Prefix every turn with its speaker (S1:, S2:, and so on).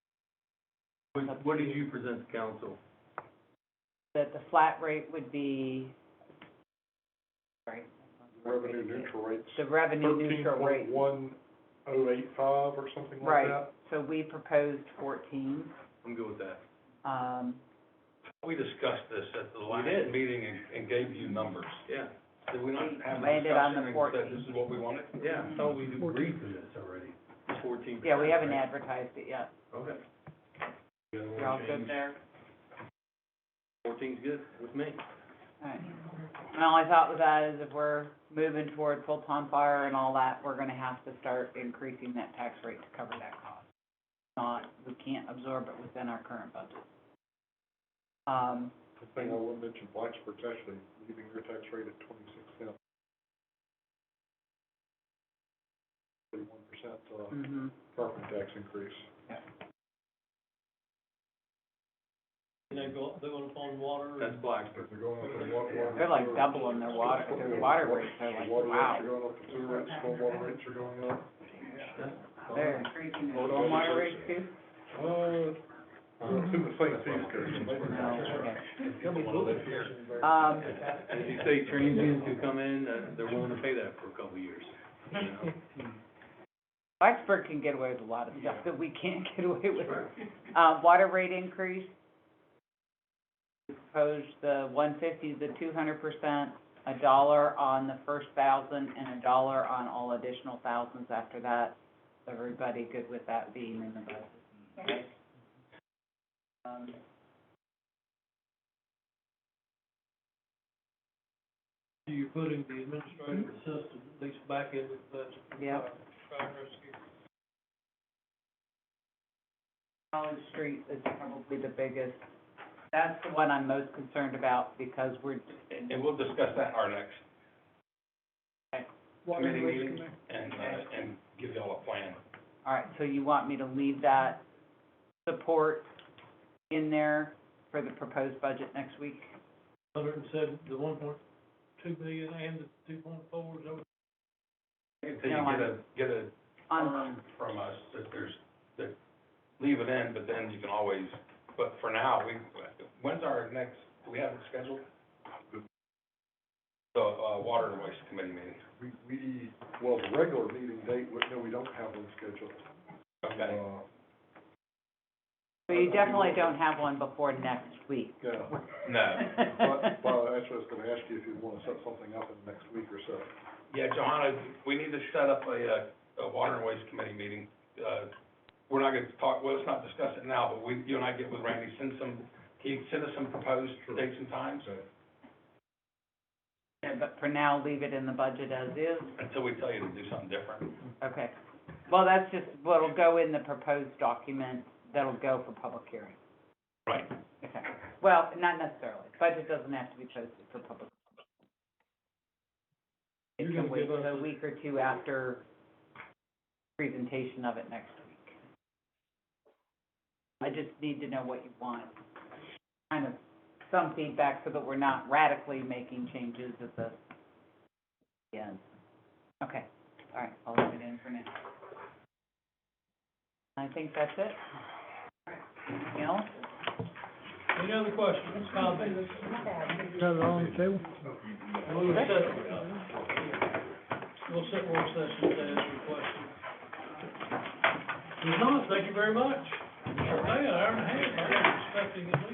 S1: What, what did you present to council?
S2: that the flat rate would be, sorry.
S3: revenue neutral rates.
S2: The revenue neutral rate,
S3: Thirteen point one oh eight five or something like
S2: right,
S3: that.
S2: so we proposed fourteen,
S1: I'm good with that.
S2: um,
S4: We discussed this at the last
S1: did.
S4: meeting and, and gave you numbers.
S1: Yeah,
S4: Did we not have a
S2: Landed on the
S4: discussion and said
S2: 14.
S4: this is what we wanted?
S1: yeah, I thought we agreed to this already. Fourteen percent.
S2: yeah, we haven't advertised it yet.
S1: Okay,
S2: You're all good there?
S1: fourteen's good with me.
S2: Alright. My only thought with that is if we're moving toward full-time fire and all that, we're gonna have to start increasing that tax rate to cover that cost. Not, we can't absorb it within our current budget. Um,
S3: The thing I will mention, Blacksburg's actually leaving their tax rate at twenty-six cents. Thirty-one percent, uh,
S2: mhm.
S3: property tax increase.
S1: That's Blacksburg.
S3: They're going up their wa- water.
S2: They're like doubling their water, their water rates, they're
S3: Their
S2: like,
S3: water rates are
S2: wow,
S3: going up, the sewer rates, stormwater rates are going up.
S2: they're increasing their stormwater rates too?
S3: Uh, well, it's in the same fee schedule, maybe
S2: No,
S3: not.
S2: okay.
S3: But
S2: Um,
S1: As you say, transients who come in, uh, they're willing to pay that for a couple of years, you know?
S2: Blacksburg can get away with a lot of stuff that we can't get away with. Uh, water rate increase, we proposed the one fifty, the two hundred percent, a dollar on the first thousand and a dollar on all additional thousands after that. Everybody good with that being in the budget? Okay. Um,
S5: You're putting the administrative assistant, at least back into the budget.
S3: Uh,
S2: yeah.
S5: Fire and rescue.
S2: College Street is probably the biggest, that's the one I'm most concerned about because we're,
S4: And, and we'll discuss that our next committee meeting and, uh, and give y'all a plan.
S2: all right, so you want me to leave that support in there for the proposed budget next week?
S5: Hundred and seven, the one point two million and the two point four is over.
S4: Until you
S2: No,
S4: get a,
S2: I'm-
S4: get a
S2: On,
S3: Um,
S4: firm from us that there's, that, leave it in, but then you can always, but for now, we, when's our next, do we have it scheduled? The, uh, Water and Waste Committee meeting.
S3: We, we, well, the regular meeting date, we- no, we don't have one scheduled.
S4: Okay.
S3: Uh,
S2: so you definitely don't have one before next week.
S3: Yeah,
S4: No.
S3: but, well, actually, I was gonna ask you if you wanna set something up in the next week or so.
S4: Yeah, Johanna, we need to set up a, uh, a water and waste committee meeting. Uh, we're not gonna talk, well, let's not discuss it now, but we, you and I get with Randy, send some, can you send us some proposed dates and times
S2: Yeah, But for now, leave it in the budget as is,
S4: until we tell you to do something different?
S2: okay. Well, that's just what'll go in the proposed document, that'll go for public hearing.
S4: Right.
S2: Okay, well, not necessarily, budget doesn't have to be posted for public. It
S5: You're
S2: can
S5: gonna
S2: wait
S5: give us
S2: a
S5: a-
S2: week or two after presentation of it next week. I just need to know what you want, kind of some feedback so that we're not radically making changes at the end. Okay, all right, I'll leave it in for now. I think that's it. Anything else?
S5: Any other questions, comments? We'll sit, we'll sit work session to answer questions. If not, thank you very much. Hey, an hour and a half.